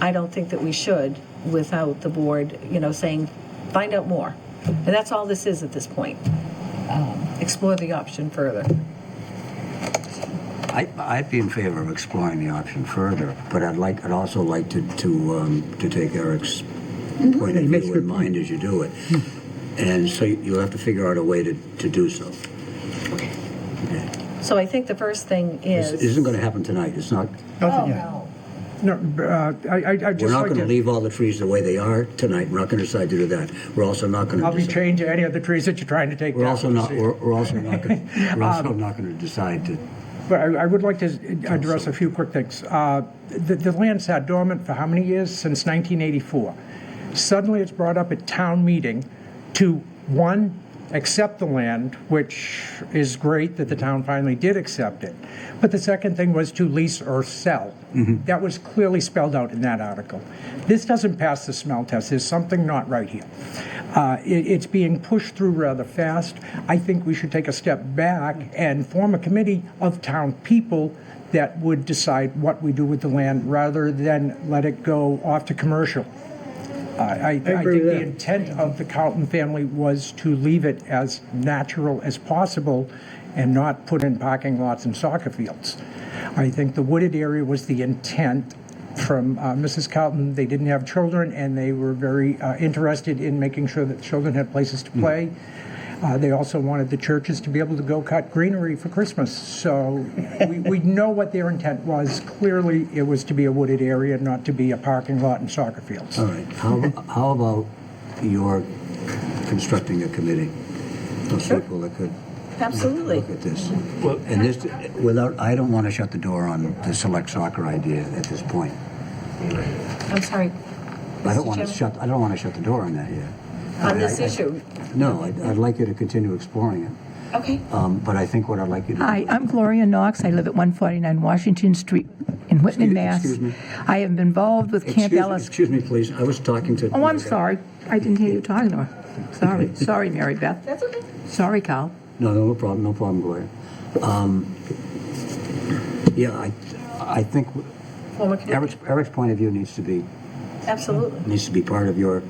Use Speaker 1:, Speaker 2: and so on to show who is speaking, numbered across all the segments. Speaker 1: I don't think that we should without the board, you know, saying, find out more. And that's all this is at this point. Um, Explore the option further.
Speaker 2: I, I'd be in favor of exploring the option further, but I'd like, I'd also like to, to, um, to take Eric's point of
Speaker 3: Mm-hmm. He makes
Speaker 2: view
Speaker 3: a
Speaker 2: in
Speaker 3: good Hmm.
Speaker 2: mind as you do it. And so you- you'll have to figure out a way to, to do so.
Speaker 1: So I think the first thing
Speaker 2: This
Speaker 1: is.
Speaker 2: isn't gonna happen tonight, it's not,
Speaker 3: Nothing
Speaker 1: Oh,
Speaker 3: yet.
Speaker 1: no.
Speaker 3: No, uh, I, I I'd
Speaker 2: we're
Speaker 3: just
Speaker 2: not
Speaker 3: like
Speaker 2: gonna
Speaker 3: to,
Speaker 2: leave all the trees the way they are tonight, we're not gonna decide to do that. We're also not gonna.
Speaker 3: I'll be
Speaker 2: decide-
Speaker 3: changing any of the trees that you're trying to take down.
Speaker 2: We're also not,
Speaker 3: See.
Speaker 2: we're we're also not, gonna- we're also
Speaker 3: Um,
Speaker 2: not gonna decide to,
Speaker 3: But I, I would like to address a few quick things. Uh, The, the land sat dormant for how many years? Since 1984. Suddenly, it's brought up at town meeting to, one, accept the land, which is great that the town finally did accept it. But the second thing was to lease or sell.
Speaker 2: Mm-hmm.
Speaker 3: That was clearly spelled out in that article. This doesn't pass the smell test. There's something not right here. Uh, it, it's being pushed through rather fast. I think we should take a step back and form a committee of town people that would decide what we do with the land rather than let it go off to commercial. I, I, I think
Speaker 4: agree with
Speaker 3: the
Speaker 4: that.
Speaker 3: intent of the Carlton family was to leave it as natural as possible and not put in parking lots and soccer fields. I think the wooded area was the intent from uh, Mrs. Carlton. They didn't have children and they were very uh, interested in making sure that children had places
Speaker 4: Hmm.
Speaker 3: to play. Uh, they also wanted the churches to be able to go cut greenery for Christmas. So we, we know what their intent was. Clearly, it was to be a wooded area, not to be a parking lot and soccer fields.
Speaker 2: all right, how, how about your constructing a committee of people that could
Speaker 1: Absolutely.
Speaker 2: look at this. And this, without, I don't want to shut the door on the select soccer idea at this point.
Speaker 1: I'm sorry.
Speaker 2: I
Speaker 1: Mr.
Speaker 2: don't want
Speaker 1: Chairman?
Speaker 2: to shut, I don't want to shut the door on that yet.
Speaker 1: On this
Speaker 2: I- I-
Speaker 1: issue.
Speaker 2: No, I'd, I'd like you to continue exploring it,
Speaker 1: Okay.
Speaker 2: um, but I think what I'd like you to.
Speaker 5: Hi, I'm Gloria Knox. I live at 149 Washington Street in Whitman,
Speaker 2: Excuse-
Speaker 5: Mass.
Speaker 2: excuse me.
Speaker 5: I have been involved with
Speaker 2: Excuse
Speaker 5: Camp
Speaker 2: me-
Speaker 5: Ellis.
Speaker 2: Excuse me, please, I was talking to.
Speaker 5: Oh, I'm sorry. I didn't hear you talking to her. Sorry, sorry, Mary Beth.
Speaker 1: That's okay.
Speaker 5: Sorry, Carl.
Speaker 2: No, no problem, no problem, Gloria. Um, yeah, I, I think
Speaker 1: Form a committee.
Speaker 2: Eric's, Eric's point of view needs to be,
Speaker 1: Absolutely.
Speaker 2: needs to be part of your,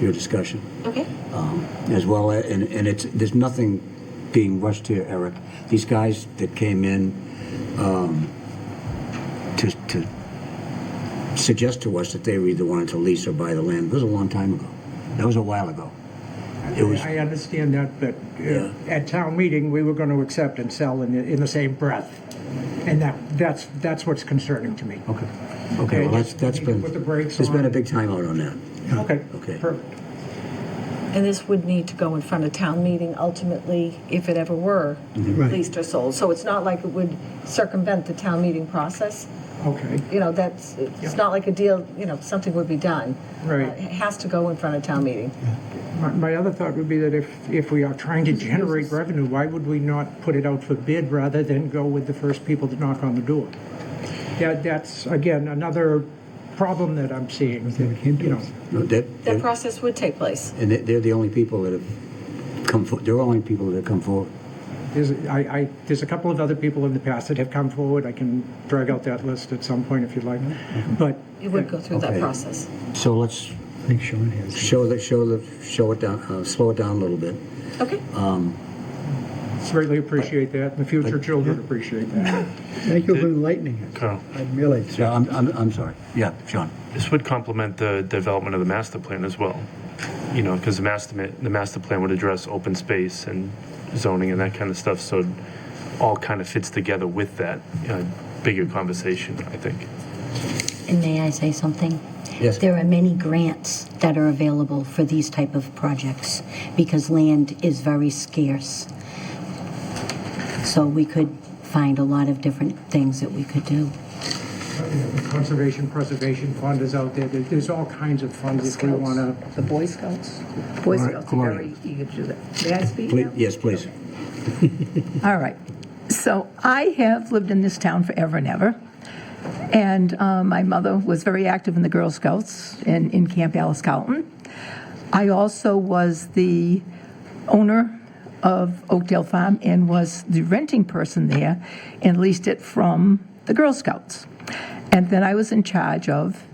Speaker 2: your discussion.
Speaker 1: Okay.
Speaker 2: um, as well, and, and it's, there's nothing being rushed here, Eric. These guys that came in um, to, to suggest to us that they were either wanted to lease or buy the land, was a long time ago. That was a while ago. It was,
Speaker 3: I understand that, but uh, at town meeting, we were going to accept and sell in, the- in the same breath. And that, that's, that's what's concerning to me.
Speaker 2: okay, okay, well, that's, that's
Speaker 3: You can
Speaker 2: been,
Speaker 3: put the brakes
Speaker 2: there's been a
Speaker 3: on.
Speaker 2: big timeout on that.
Speaker 3: Okay.
Speaker 2: Okay.
Speaker 3: Perfect.
Speaker 1: And this would need to go in front of town meeting ultimately, if it ever were
Speaker 2: Mm-hmm.
Speaker 4: Right.
Speaker 1: leased or sold. So it's not like it would circumvent the town meeting process.
Speaker 3: Okay.
Speaker 1: You know, that's, it's not like a deal, you know, something would be done.
Speaker 3: Right.
Speaker 1: Uh, It has to go in front of town meeting.
Speaker 3: My, my other thought would be that if, if we are trying to generate revenue, why would we not put it out for bid rather than go with the first people to knock on the door? That, that's, again, another problem that I'm seeing, you know.
Speaker 2: No, that-
Speaker 1: That process would take place.
Speaker 2: And they- they're the only people that have come, for- they're the only people that have come forward.
Speaker 3: There's, I, I, there's a couple of other people in the past that have come forward. I can drag out that list at some point if you'd like. But
Speaker 1: It would go through that
Speaker 2: Okay.
Speaker 1: process.
Speaker 2: So let's
Speaker 4: I think Sean has.
Speaker 2: show the, show the, show it down, uh, slow it down a little bit.
Speaker 1: Okay.
Speaker 3: greatly appreciate that. and The future children appreciate that.
Speaker 4: Thank you for enlightening us.
Speaker 6: Carl.
Speaker 4: I really,
Speaker 2: Yeah, I'm, I'm, I'm sorry. Yeah, Sean.
Speaker 6: This would complement the development of the master plan as well, you know, because the master, ma- the master plan would address open space and zoning and that kind of stuff, so it all kind of fits together with that uh, bigger conversation, I think.
Speaker 7: And may I say something?
Speaker 2: Yes.
Speaker 7: There are many grants that are available for these type of projects because land is very scarce. So we could find a lot of different things that we could do.
Speaker 3: Conservation Preservation Fund is out there. There- There's all kinds of funds if we want to.
Speaker 8: The Boy Scouts. Boy
Speaker 2: Gloria-
Speaker 8: Scouts are very
Speaker 2: Gloria.
Speaker 8: eager to do that. May I speak
Speaker 2: Please,
Speaker 8: now?
Speaker 2: yes, please.
Speaker 5: All right. So I have lived in this town forever and ever. And uh, my mother was very active in the Girl Scouts and in Camp Alice Calton. I also was the owner of Oakdale Farm and was the renting person there and leased it from the Girl Scouts. And then I was in charge of